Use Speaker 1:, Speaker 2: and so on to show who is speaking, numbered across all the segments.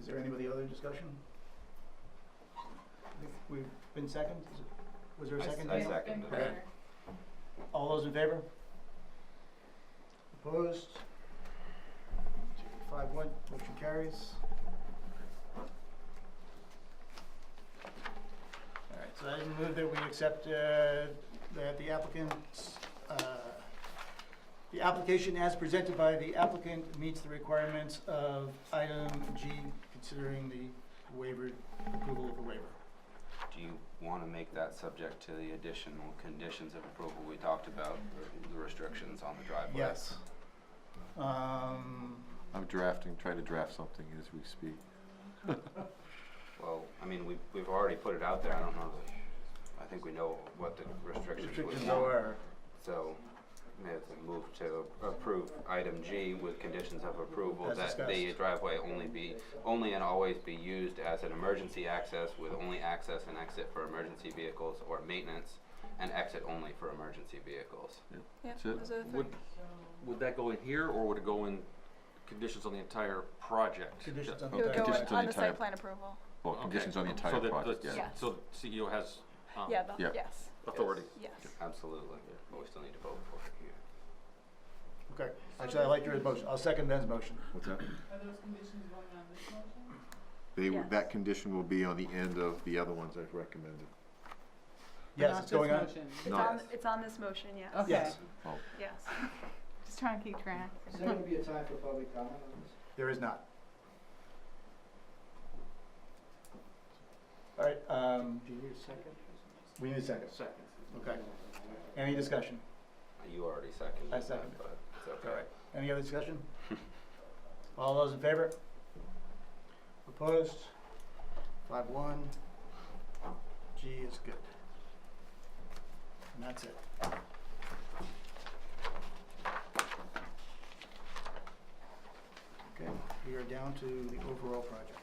Speaker 1: Is there any with the other discussion? I think We've been second, is it, was there a
Speaker 2: I s-
Speaker 1: second?
Speaker 2: I
Speaker 1: Dan?
Speaker 2: sec- second
Speaker 1: Okay. All those in favor? Opposed? Five one, motion carries. Alright, so I move that we accept, uh, that the applicant's, uh, the application as presented by the applicant meets the requirements of item G, considering the waiver, approval of the waiver.
Speaker 2: Do you wanna make that subject to the additional conditions of approval we talked about, or the restrictions on the driveway?
Speaker 1: Yes. Um,
Speaker 3: I'm drafting, trying to draft something as we speak.
Speaker 2: Well, I mean, we've, we've already put it out there, I don't know, the- I think we know what the restrictions would
Speaker 1: restrictions
Speaker 2: want.
Speaker 1: are,
Speaker 2: So, may I move to approve item G with conditions of approval
Speaker 1: As
Speaker 2: that the
Speaker 1: discussed.
Speaker 2: driveway only be, only and always be used as an emergency access with only access and exit for emergency vehicles or maintenance and exit only for emergency vehicles.
Speaker 4: Yeah,
Speaker 3: That's it.
Speaker 4: those are the three.
Speaker 5: Would, would that go in here, or would it go in conditions on the entire project?
Speaker 1: conditions on the.
Speaker 4: It would
Speaker 3: Okay,
Speaker 4: go
Speaker 3: just
Speaker 4: on-
Speaker 3: to
Speaker 4: on
Speaker 3: the
Speaker 4: the site
Speaker 3: entire-
Speaker 4: plan approval.
Speaker 3: Well,
Speaker 5: Okay.
Speaker 3: conditions on the
Speaker 5: So
Speaker 3: entire
Speaker 5: that the-
Speaker 3: project, yeah.
Speaker 4: Yeah.
Speaker 5: So the CEO has, um,
Speaker 4: Yeah, the,
Speaker 3: yeah.
Speaker 4: yes,
Speaker 5: authority.
Speaker 4: yes.
Speaker 2: Absolutely, but we still need to vote for it here.
Speaker 1: Okay, actually, I like your motion, I'll second Ben's motion.
Speaker 3: What's that?
Speaker 6: Are those conditions going on this motion?
Speaker 3: They, w-
Speaker 4: Yes.
Speaker 3: that condition will be on the end of the other ones I've recommended.
Speaker 1: Yes, it's going on,
Speaker 4: It's
Speaker 3: No.
Speaker 4: on, it's on this motion,
Speaker 3: Oh.
Speaker 4: yes,
Speaker 1: yes,
Speaker 4: yes. Just trying to keep track.
Speaker 7: Is there gonna be a time for public comment on this?
Speaker 1: there is not. All right, um,
Speaker 7: Do you need a second?
Speaker 1: we need a second,
Speaker 5: Second.
Speaker 1: okay. Any discussion?
Speaker 2: You already seconded
Speaker 1: I
Speaker 2: that,
Speaker 1: seconded.
Speaker 2: but it's okay.
Speaker 1: Any other discussion? All those in favor? Opposed? Five one. G is good. And that's it. Okay, we are down to the overall project.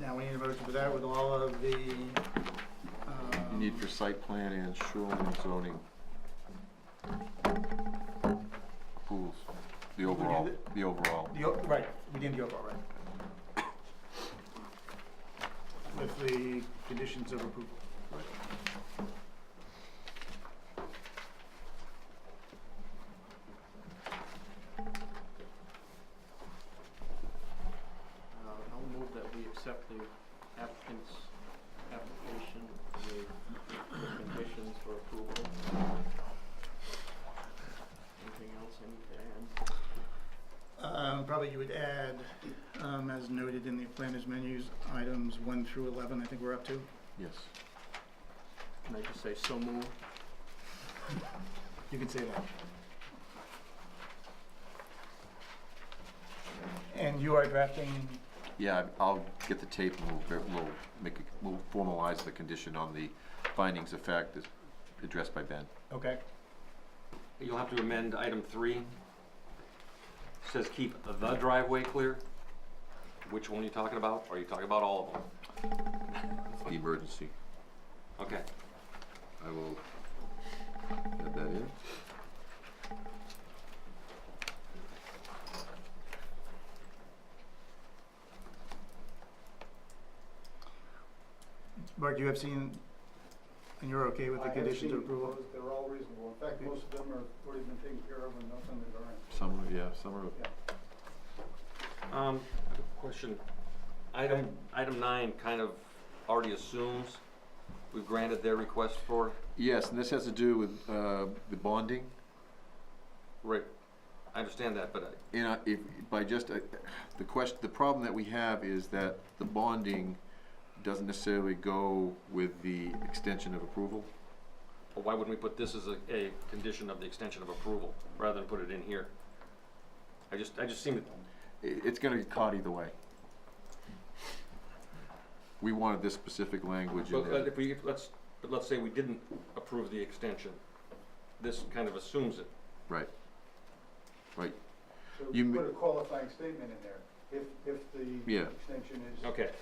Speaker 1: Now, we need a motion for that with all of the,
Speaker 3: You
Speaker 1: um.
Speaker 3: need for site plan and shoreline zoning. Pools, the overall,
Speaker 1: the-
Speaker 3: the overall.
Speaker 1: The, o- right, we did the overall, right. With the conditions of approval.
Speaker 7: Uh, I'll move that we accept the applicant's application with conditions for approval. Anything else I need to add?
Speaker 1: Um, probably you would add, um, as noted in the planners menus, items one through eleven, I think we're up to.
Speaker 3: Yes.
Speaker 7: Can I just say so moved?
Speaker 1: You can say that. And you are drafting,
Speaker 3: Yeah, I- I'll get the tape and we'll, ver- we'll make, a- we'll formalize the condition on the findings of fact that's addressed by Ben.
Speaker 1: okay,
Speaker 5: You'll have to amend item three. Says keep the driveway clear. Which one are you talking about? Are you talking about all of them?
Speaker 3: The emergency.
Speaker 5: Okay.
Speaker 3: I will add that in.
Speaker 1: Mark, you have seen, and you're okay with the conditions of
Speaker 7: I
Speaker 1: approval?
Speaker 7: have seen those, they're all reasonable, in fact, most of them are already been taken care of and nothing is orange.
Speaker 3: Some, of yeah, some are
Speaker 5: Um, I have a question. Item, item nine kind of already assumes we've granted their request for,
Speaker 3: Yes, and this has to do with uh, the bonding.
Speaker 5: right, I understand that, but uh, I,
Speaker 3: And I- if, by just, uh, the question, the problem that we have is that the bonding doesn't necessarily go with the extension of approval.
Speaker 5: Well, why wouldn't we put this as a, a condition of the extension of approval, rather than put it in here? I just, I just seem,
Speaker 3: I- It's gonna get caught either way. We wanted this specific language in
Speaker 5: but uh, but
Speaker 3: there.
Speaker 5: if we, let's, but let's say we didn't approve the extension, this kind of assumes it.
Speaker 3: Right. Right,
Speaker 7: So
Speaker 3: You m-
Speaker 7: put a qualifying statement in there, if, if the
Speaker 3: Yeah.
Speaker 7: extension is
Speaker 5: Okay,